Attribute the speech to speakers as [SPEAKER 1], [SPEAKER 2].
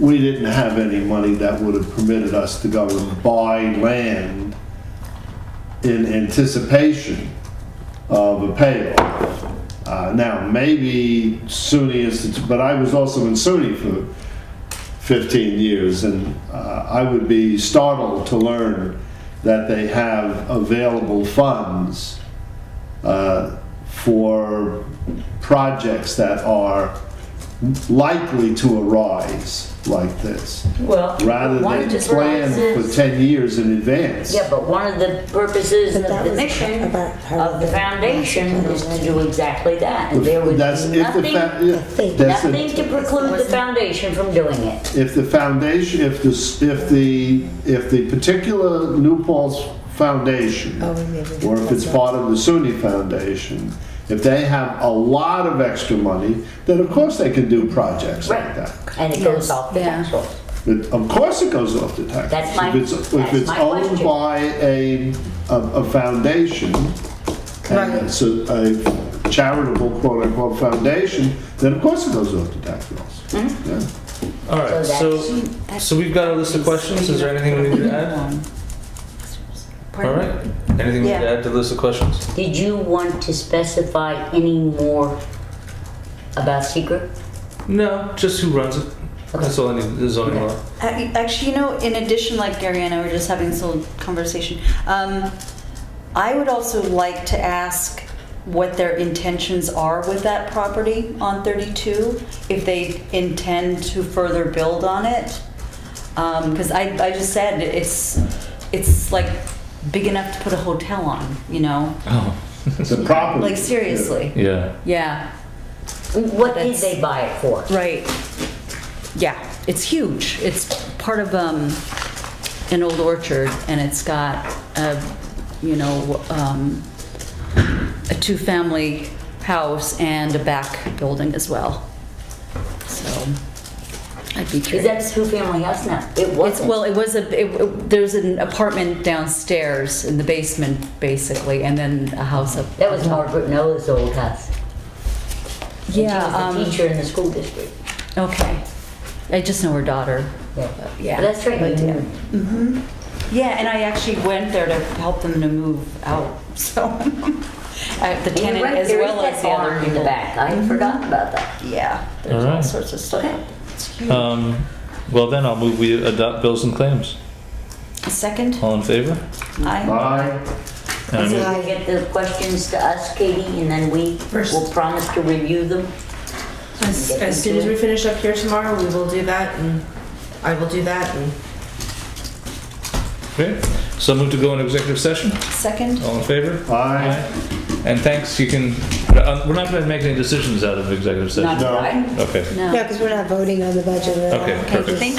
[SPEAKER 1] we didn't have any money that would have permitted us to go and buy land in anticipation of a payoff. Uh, now, maybe SUNY is, but I was also in SUNY for 15 years, and uh, I would be startled to learn that they have available funds uh, for projects that are likely to arise like this,
[SPEAKER 2] Well,
[SPEAKER 1] rather
[SPEAKER 2] one
[SPEAKER 1] than
[SPEAKER 2] of the
[SPEAKER 1] plan for
[SPEAKER 2] purposes-
[SPEAKER 1] 10 years in advance.
[SPEAKER 2] Yeah, but one of the purposes of
[SPEAKER 3] But that
[SPEAKER 2] the
[SPEAKER 3] was
[SPEAKER 2] mission
[SPEAKER 3] about her
[SPEAKER 2] of the
[SPEAKER 3] being
[SPEAKER 2] foundation is to do exactly that. And there would be
[SPEAKER 1] That's if the, fa-
[SPEAKER 2] nothing,
[SPEAKER 1] yeah,
[SPEAKER 3] Nothing.
[SPEAKER 1] that's the-
[SPEAKER 2] nothing to preclude the foundation from doing it.
[SPEAKER 1] if the foundation, if the, s- if the, if the particular New Paltz Foundation,
[SPEAKER 3] Oh, we need to-
[SPEAKER 1] or if it's part of the SUNY Foundation, if they have a lot of extra money, then of course they can do projects like
[SPEAKER 2] Right.
[SPEAKER 1] that.
[SPEAKER 2] And it goes off the
[SPEAKER 4] Yeah.
[SPEAKER 2] tax rolls.
[SPEAKER 1] But of course it goes off the tax.
[SPEAKER 2] That's my-
[SPEAKER 1] If it's, if
[SPEAKER 2] that's
[SPEAKER 1] it's
[SPEAKER 2] my
[SPEAKER 1] owned
[SPEAKER 2] question.
[SPEAKER 1] by a, a, a foundation, and
[SPEAKER 3] Right.
[SPEAKER 1] it's a a charitable quote-unquote foundation, then of course it goes off the tax rolls.
[SPEAKER 2] Mm-hmm.
[SPEAKER 1] Yeah.
[SPEAKER 5] All right,
[SPEAKER 2] So
[SPEAKER 5] so, so we've got a list of questions. Is there anything we need to add?
[SPEAKER 4] Um,
[SPEAKER 5] All right, anything we need to add to the list of questions?
[SPEAKER 2] Did you want to specify any more about secret?
[SPEAKER 5] No, just who runs it. That's all I need, the zoning law.
[SPEAKER 4] Ac- Uh, Actually, you know, in addition, like Gary and I were just having this little conversation, um, I would also like to ask what their intentions are with that property on 32, if they intend to further build on it. Because I, I just said it's, it's like big enough to put a hotel on, you know?
[SPEAKER 5] Oh,
[SPEAKER 1] It's a property.
[SPEAKER 4] Like, seriously.
[SPEAKER 5] yeah.
[SPEAKER 4] Yeah,
[SPEAKER 2] What did
[SPEAKER 4] That's-
[SPEAKER 2] they buy it for?
[SPEAKER 4] right. Yeah, it's huge. It's part of um, an old orchard, and it's got a, you know, um, a two-family house and a back building as well. So, I'd be
[SPEAKER 2] Is
[SPEAKER 4] curious.
[SPEAKER 2] that a two-family house now? It
[SPEAKER 4] It's,
[SPEAKER 2] wasn't.
[SPEAKER 4] well, it was a, it- it- there's an apartment downstairs in the basement, basically, and then a house up.
[SPEAKER 2] That was Margaret Noah's old house. And she
[SPEAKER 4] Yeah,
[SPEAKER 2] was a
[SPEAKER 4] um,
[SPEAKER 2] teacher in the school district.
[SPEAKER 4] Okay. I just know her daughter.
[SPEAKER 2] Yeah.
[SPEAKER 4] Yeah.
[SPEAKER 2] That's right.
[SPEAKER 4] But,
[SPEAKER 2] you
[SPEAKER 4] yeah.
[SPEAKER 2] moved.
[SPEAKER 4] Yeah, and I actually went there to help them to move out, so, uh, the
[SPEAKER 2] You're
[SPEAKER 4] tenant
[SPEAKER 2] right,
[SPEAKER 4] as
[SPEAKER 2] there is
[SPEAKER 4] well
[SPEAKER 2] that
[SPEAKER 4] as the other
[SPEAKER 2] barn
[SPEAKER 4] people.
[SPEAKER 2] in the back. I had forgotten about that.
[SPEAKER 4] Yeah,
[SPEAKER 5] All
[SPEAKER 4] there's all
[SPEAKER 5] right.
[SPEAKER 4] sorts of stuff. It's huge.
[SPEAKER 5] Um, well then, I'll move we adopt bills and claims.
[SPEAKER 4] A Second,
[SPEAKER 5] All in favor?
[SPEAKER 4] I,
[SPEAKER 1] Aye.
[SPEAKER 5] And I
[SPEAKER 2] So
[SPEAKER 5] move-
[SPEAKER 2] you'll get the questions to us, Katie, and then we will promise to review them.
[SPEAKER 6] As, as soon as we finish up here tomorrow, we will do that, and I will do that, and
[SPEAKER 5] Okay, so move to go into executive session.
[SPEAKER 4] second,
[SPEAKER 5] All in favor?
[SPEAKER 1] Aye.
[SPEAKER 5] And thanks, you can, uh, we're not gonna make any decisions out of executive
[SPEAKER 4] not
[SPEAKER 5] session.
[SPEAKER 1] No.
[SPEAKER 4] tonight.
[SPEAKER 5] Okay,
[SPEAKER 4] No.
[SPEAKER 3] No, because we're not voting on the budget at all.
[SPEAKER 5] okay, perfect.
[SPEAKER 4] Thank